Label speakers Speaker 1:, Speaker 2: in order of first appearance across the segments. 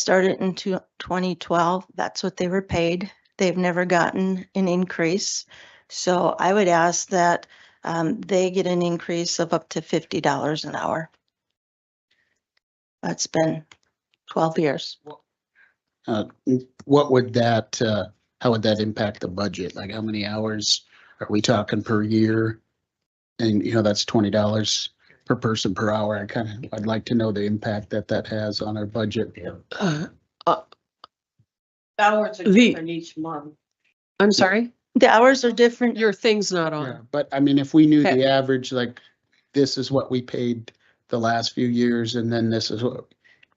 Speaker 1: started in two- 2012, that's what they were paid. They've never gotten an increase. So I would ask that um, they get an increase of up to $50 an hour. That's been 12 years.
Speaker 2: Uh, What would that, uh, how would that impact the budget? Like how many hours are we talking per year? And you know, that's twenty dollars per person per hour. I kind of, I'd like to know the impact that that has on our budget.
Speaker 3: Uh,
Speaker 4: Hours are
Speaker 3: The-
Speaker 4: different each month.
Speaker 3: I'm sorry,
Speaker 1: The hours are different.
Speaker 3: your thing's not
Speaker 2: Yeah,
Speaker 3: on.
Speaker 2: But I mean, if we knew
Speaker 3: Okay.
Speaker 2: the average, like this is what we paid the last few years and then this is what,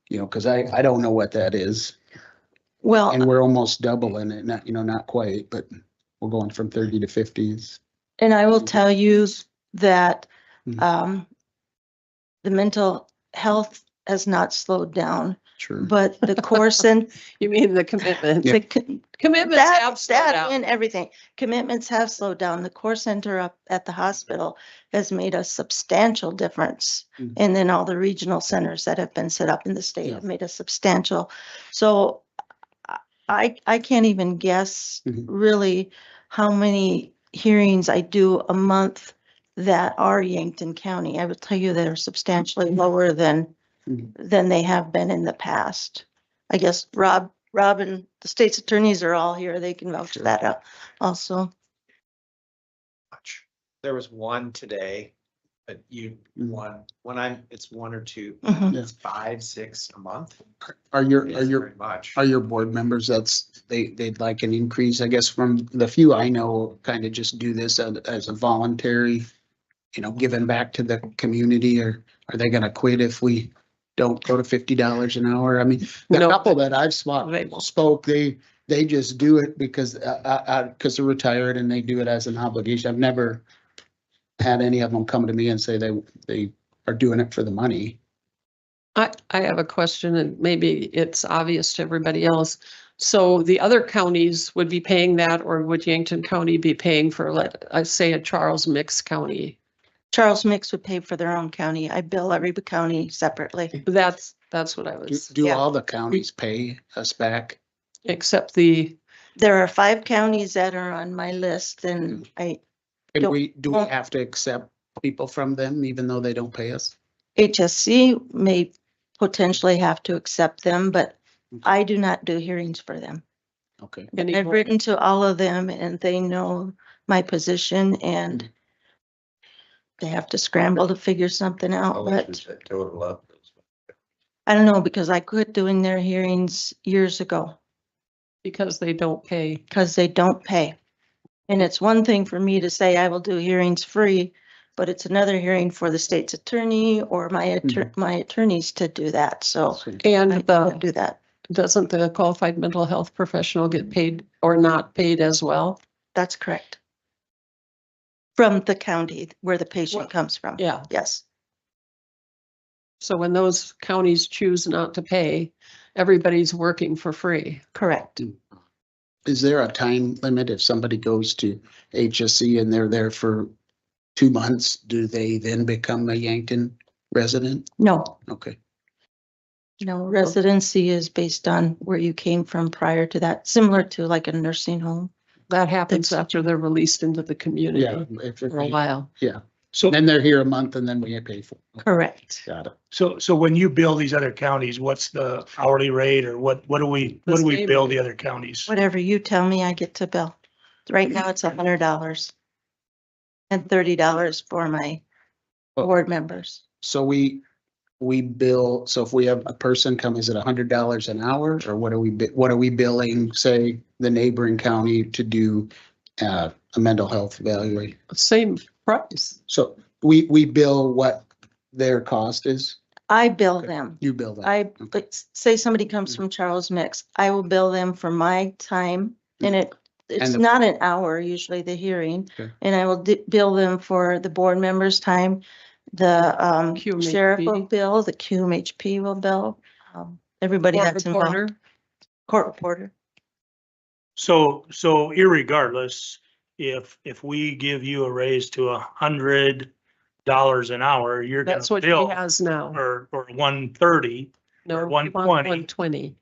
Speaker 2: you know, because I, I don't know what that is. And
Speaker 1: Well,
Speaker 2: we're almost doubling it, not, you know, not quite, but we're going from thirty to fifties.
Speaker 1: and I will tell you that
Speaker 2: Mhm.
Speaker 1: um, the mental health has not slowed down,
Speaker 2: Sure.
Speaker 1: but the course and
Speaker 3: You mean the commitment?
Speaker 1: the con-
Speaker 3: Commitment's
Speaker 1: That,
Speaker 3: absolutely
Speaker 1: that
Speaker 3: out.
Speaker 1: and everything. Commitments have slowed down. The core center up at the hospital has made a substantial difference.
Speaker 2: Mm.
Speaker 1: And then all the regional centers that have been set up in the state
Speaker 2: Yeah.
Speaker 1: have made a substantial. So I- I, I can't even guess
Speaker 2: Mhm.
Speaker 1: really how many hearings I do a month that are Yankton County. I would tell you they're substantially
Speaker 2: Mm-hmm.
Speaker 1: lower than,
Speaker 2: Mhm.
Speaker 1: than they have been in the past. I guess Rob, Rob and the state's attorneys are all here. They can vouch for that out also.
Speaker 5: much. There was one today, but you,
Speaker 2: Mm.
Speaker 5: one, when I'm, it's one or two,
Speaker 1: Mhm.
Speaker 2: Yeah.
Speaker 5: it's five, six a month.
Speaker 2: Are your,
Speaker 5: It
Speaker 2: are
Speaker 5: isn't
Speaker 2: your
Speaker 5: very Much.
Speaker 2: Are your board members, that's, they, they'd like an increase, I guess, from the few I know, kind of just do this as, as a voluntary, you know, giving back to the community, or are they gonna quit if we don't go to fifty dollars an hour? I mean, the
Speaker 3: No.
Speaker 2: couple that I've spoke,
Speaker 3: They won't.
Speaker 2: spoke, they, they just do it because, uh, uh, uh, because they're retired and they do it as an obligation. I've never had any of them come to me and say they, they are doing it for the money.
Speaker 3: I, I have a question and maybe it's obvious to everybody else. So the other counties would be paying that or would Yankton County be paying for, let, I say a Charles Mix County?
Speaker 1: Charles Mix would pay for their own county. I bill every county separately.
Speaker 3: That's, that's what I
Speaker 2: Do,
Speaker 3: was,
Speaker 2: do
Speaker 1: Yeah.
Speaker 2: all the counties pay us back?
Speaker 3: except the,
Speaker 1: There are five counties that are on my list and I,
Speaker 2: And
Speaker 1: Don't-
Speaker 2: we, do we
Speaker 1: won't-
Speaker 2: have to accept people from them even though they don't pay us?
Speaker 1: HSC may potentially have to accept them, but I do not do hearings for them.
Speaker 2: Okay.
Speaker 3: any-
Speaker 1: I've written to all of them and they know my position and they have to scramble to figure something out,
Speaker 5: Oh,
Speaker 1: but
Speaker 5: Total up.
Speaker 1: I don't know, because I quit doing their hearings years ago
Speaker 3: because they don't pay.
Speaker 1: because they don't pay. And it's one thing for me to say I will do hearings free, but it's another hearing for the state's attorney or my attorney, my attorneys to do that, so
Speaker 3: And
Speaker 1: I
Speaker 3: the,
Speaker 1: don't do that.
Speaker 3: doesn't the qualified mental health professional get paid or not paid as well?
Speaker 1: That's correct. From the county where the patient
Speaker 3: Well,
Speaker 1: comes from.
Speaker 3: Yeah.
Speaker 1: Yes.
Speaker 3: So when those counties choose not to pay, everybody's working for free.
Speaker 1: Correct.
Speaker 2: Is there a time limit if somebody goes to HSC and they're there for two months? Do they then become a Yankton resident?
Speaker 1: No,
Speaker 2: Okay.
Speaker 1: no residency is based on where you came from prior to that, similar to like a nursing home.
Speaker 3: That happens
Speaker 1: It's-
Speaker 3: after they're released into the
Speaker 2: Yeah.
Speaker 3: community
Speaker 2: if-
Speaker 3: for a
Speaker 2: if-
Speaker 3: while.
Speaker 6: So,
Speaker 2: Then they're here a month and then we pay for. it.
Speaker 1: Correct.
Speaker 2: Got it.
Speaker 6: so, so when you bill these other counties, what's the hourly rate or what, what do we, what do we
Speaker 3: same
Speaker 6: bill
Speaker 3: rate.
Speaker 6: the other counties?
Speaker 1: Whatever you tell me, I get to bill. Right now, it's a hundred dollars. And thirty dollars for my
Speaker 2: Well-
Speaker 1: board members.
Speaker 2: So we, we bill, so if we have a person come, is it a hundred dollars an hour or what are we, bi- what are we billing, say, the neighboring county to do uh, a mental health evaluation?
Speaker 3: Same price.
Speaker 2: So we, we bill what their cost is,
Speaker 1: I bill
Speaker 2: Okay.
Speaker 1: them.
Speaker 2: you bill that.
Speaker 1: I,
Speaker 2: Okay.
Speaker 1: like, s- say somebody comes
Speaker 2: Mhm.
Speaker 1: from Charles Mix, I will bill them for my time and it, it's
Speaker 2: Mm. the-
Speaker 1: not an hour usually, the hearing.
Speaker 2: Okay.
Speaker 1: And I will di- bill them for the board members' time, the um, sheriff
Speaker 3: QMHP.
Speaker 1: will bill, the QMHP will bill. um, Everybody
Speaker 3: Court
Speaker 1: that's involved,
Speaker 3: reporter,
Speaker 1: court reporter.
Speaker 6: So, so irregardless, if, if we give you a raise to a hundred dollars an hour, you're gonna
Speaker 3: That's what he
Speaker 6: bill
Speaker 3: has now.
Speaker 6: or, or one thirty,
Speaker 3: No,
Speaker 6: one
Speaker 3: one twenty.
Speaker 6: twenty.
Speaker 3: One twenty.